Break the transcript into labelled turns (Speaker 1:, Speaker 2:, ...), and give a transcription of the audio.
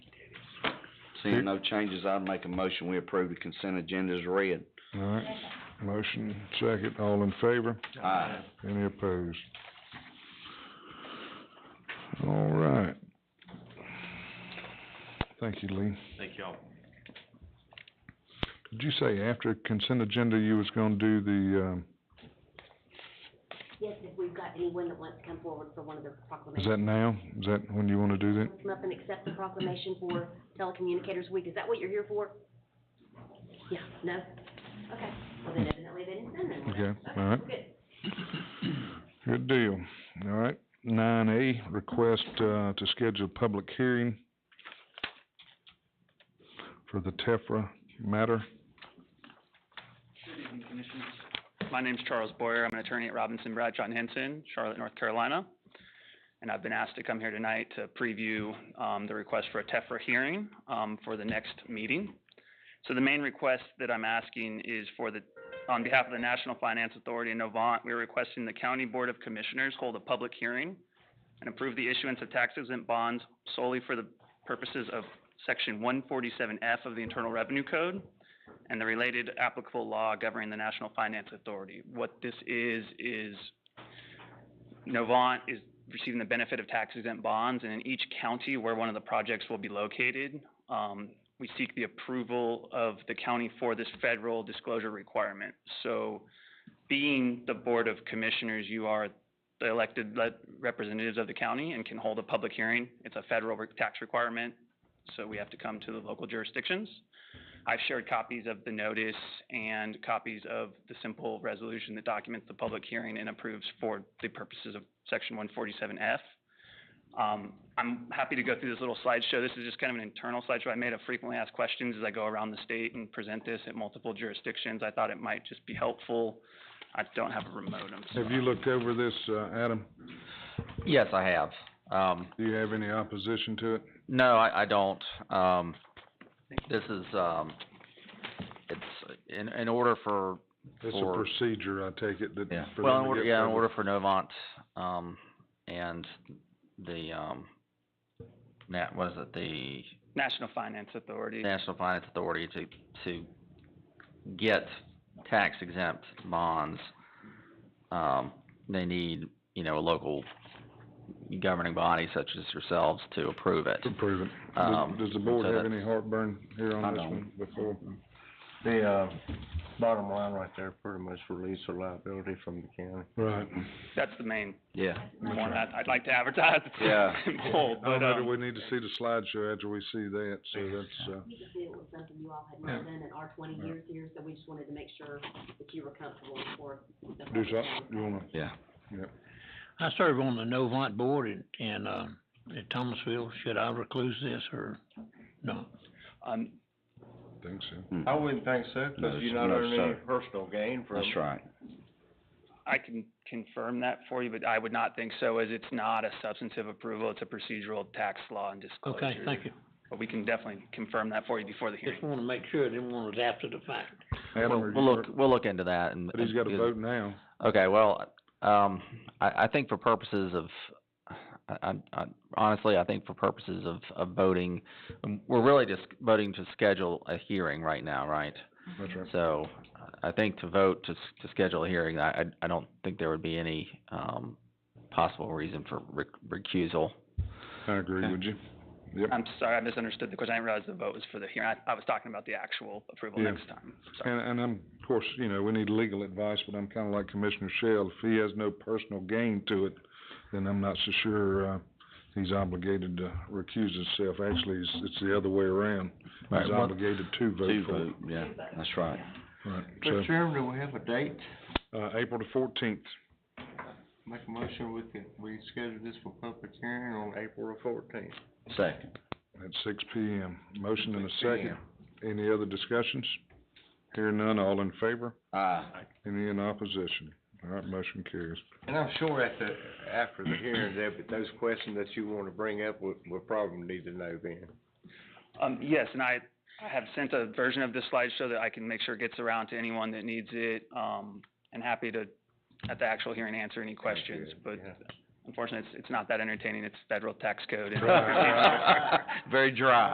Speaker 1: Seeing no changes, I'd make a motion, we approve the consent agenda as read.
Speaker 2: All right, motion second, all in favor,
Speaker 1: Aye.
Speaker 2: any opposed? All right. Thank you, Lee.
Speaker 3: Thank y'all.
Speaker 2: Did you say after consent agenda you was gonna do the, um,
Speaker 4: Yes, if we've got anyone that wants to come forward for one of the
Speaker 2: is
Speaker 4: proclamations.
Speaker 2: that now? Is that when you wanna do that?
Speaker 4: Come up and accept the proclamation for Telecommunicators Week. Is that what you're here for? Yeah, no? Okay, well then evidently they didn't send them.
Speaker 2: Okay, all right.
Speaker 4: Good.
Speaker 2: Good deal. All right, nine A, request, uh, to schedule a public hearing for the Tefra matter.
Speaker 5: Good evening, Commissioners. My name's Charles Boyer. I'm an attorney at Robinson Bradshaw and Henson, Charlotte, North Carolina. And I've been asked to come here tonight to preview um, the request for a TEFRA hearing um, for the next meeting. So the main request that I'm asking is for the, on behalf of the National Finance Authority in Novant, we're requesting the County Board of Commissioners hold a public hearing and approve the issuance of tax exempt bonds solely for the purposes of Section 147F of the Internal Revenue Code and the related applicable law governing the National Finance Authority. What this is, is Novant is receiving the benefit of tax exempt bonds, and in each county where one of the projects will be located, um, we seek the approval of the county for this federal disclosure requirement. So being the Board of Commissioners, you are the elected le- representatives of the county and can hold a public hearing. It's a federal re- tax requirement, so we have to come to the local jurisdictions. I've shared copies of the notice and copies of the simple resolution that documents the public hearing and approves for the purposes of section one forty-seven F. Um, I'm happy to go through this little slideshow. This is just kind of an internal slideshow I made of frequently asked questions as I go around the state and present this at multiple jurisdictions. I thought it might just be helpful. I don't have a remote, I'm sorry.
Speaker 2: Have you looked over this, uh, Adam?
Speaker 6: Yes, I have. Um,
Speaker 2: Do you have any opposition to it?
Speaker 6: no, I, I don't. Um, this is, um, it's in, in order for,
Speaker 2: It's a
Speaker 6: Or-
Speaker 2: procedure, I take it, that.
Speaker 6: yeah,
Speaker 2: for
Speaker 6: well,
Speaker 2: them
Speaker 6: in
Speaker 2: to
Speaker 6: order,
Speaker 2: get
Speaker 6: yeah, in
Speaker 2: public-
Speaker 6: order for Novant, um, and the, um, Nat, what is it, the
Speaker 5: National Finance Authority.
Speaker 6: National Finance Authority to, to get tax exempt bonds, um, they need, you know, a local governing body such as yourselves to approve it.
Speaker 2: To Approve it.
Speaker 6: Um,
Speaker 2: Does, does the board
Speaker 6: so
Speaker 2: have
Speaker 6: that-
Speaker 2: any heartburn here
Speaker 1: I
Speaker 2: on this
Speaker 1: don't.
Speaker 2: one before?
Speaker 3: The, uh, bottom line right there, pretty much release the liability from the county.
Speaker 2: Right.
Speaker 5: That's the main
Speaker 6: Yeah.
Speaker 5: one I- I'd like to advertise.
Speaker 1: Yeah.
Speaker 5: Hold,
Speaker 2: I
Speaker 5: but,
Speaker 2: don't know that
Speaker 5: um,
Speaker 2: we need to see the slideshow after we see that, so that's, uh,
Speaker 4: We just knew it was something you all had not done in our twenty years here, so we just wanted to make sure that you were comfortable before. the
Speaker 2: do
Speaker 4: public hearing.
Speaker 2: something, uh, you wanna,
Speaker 7: I serve on the Novant Board in, in, uh, in Thomasville. Should I recluse this or no?
Speaker 5: um,
Speaker 2: think so.
Speaker 3: I wouldn't think so,
Speaker 1: Hmm. No,
Speaker 3: cause you're
Speaker 1: sir.
Speaker 3: not
Speaker 1: No,
Speaker 3: earning any
Speaker 1: sir.
Speaker 3: personal gain from it.
Speaker 1: That's right.
Speaker 5: I can confirm that for you, but I would not think so, as it's not a substantive approval, it's a procedural tax law and disclosure.
Speaker 7: Okay, thank you.
Speaker 5: But we can definitely confirm that for you before the hearing.
Speaker 7: Just wanna make sure, didn't want it after the fact.
Speaker 2: Adam,
Speaker 6: We'll,
Speaker 2: are
Speaker 6: we'll
Speaker 2: you-
Speaker 6: look, we'll look into that and.
Speaker 2: But he's got a
Speaker 6: and-
Speaker 2: vote now.
Speaker 6: Okay, well, um, I, I think for purposes of, I, I- I, honestly, I think for purposes of, of voting, um, we're really just voting to schedule a hearing right now, right?
Speaker 2: That's right.
Speaker 6: So I think to vote to, s- to schedule a hearing, I, I- I don't think there would be any, um, possible reason for rec- recusal.
Speaker 2: I agree with you. Yep.
Speaker 5: I'm sorry, I misunderstood the question, I didn't realize the vote was for the hearing, I, I was talking about the actual approval
Speaker 2: Yeah.
Speaker 5: next time, sorry.
Speaker 2: And, and I'm, of course, you know, we need legal advice, but I'm kinda like Commissioner Shell, if he has no personal gain to it, then I'm not so sure, uh, he's obligated to recuse himself. Actually, it's, it's the other way around.
Speaker 1: Right,
Speaker 2: He's
Speaker 1: well-
Speaker 2: obligated to vote
Speaker 1: Two
Speaker 2: for it.
Speaker 1: vote, yeah, that's right.
Speaker 2: Right,
Speaker 3: Mr. Chairman, do we have a date?
Speaker 2: so, uh, April the fourteenth.
Speaker 3: Make a motion, we can, we schedule this for public hearing on April the fourteenth.
Speaker 1: Second.
Speaker 2: At six P M. Motion and a
Speaker 3: 6
Speaker 2: second. Any other discussions? Hear none, all in favor?
Speaker 1: Aye.
Speaker 2: Any in opposition? All right, motion carries.
Speaker 3: And I'm sure at the, after the hearing, that, those questions that you wanna bring up, we, we'll probably need to know then.
Speaker 5: Um, yes, and I, I have sent a version of this slideshow that I can make sure gets around to anyone that needs it, um, and happy to, at the actual hearing, answer any questions, but
Speaker 3: yeah.
Speaker 5: unfortunately, it's, it's not that entertaining, it's federal tax code and
Speaker 2: Right.
Speaker 6: Very dry.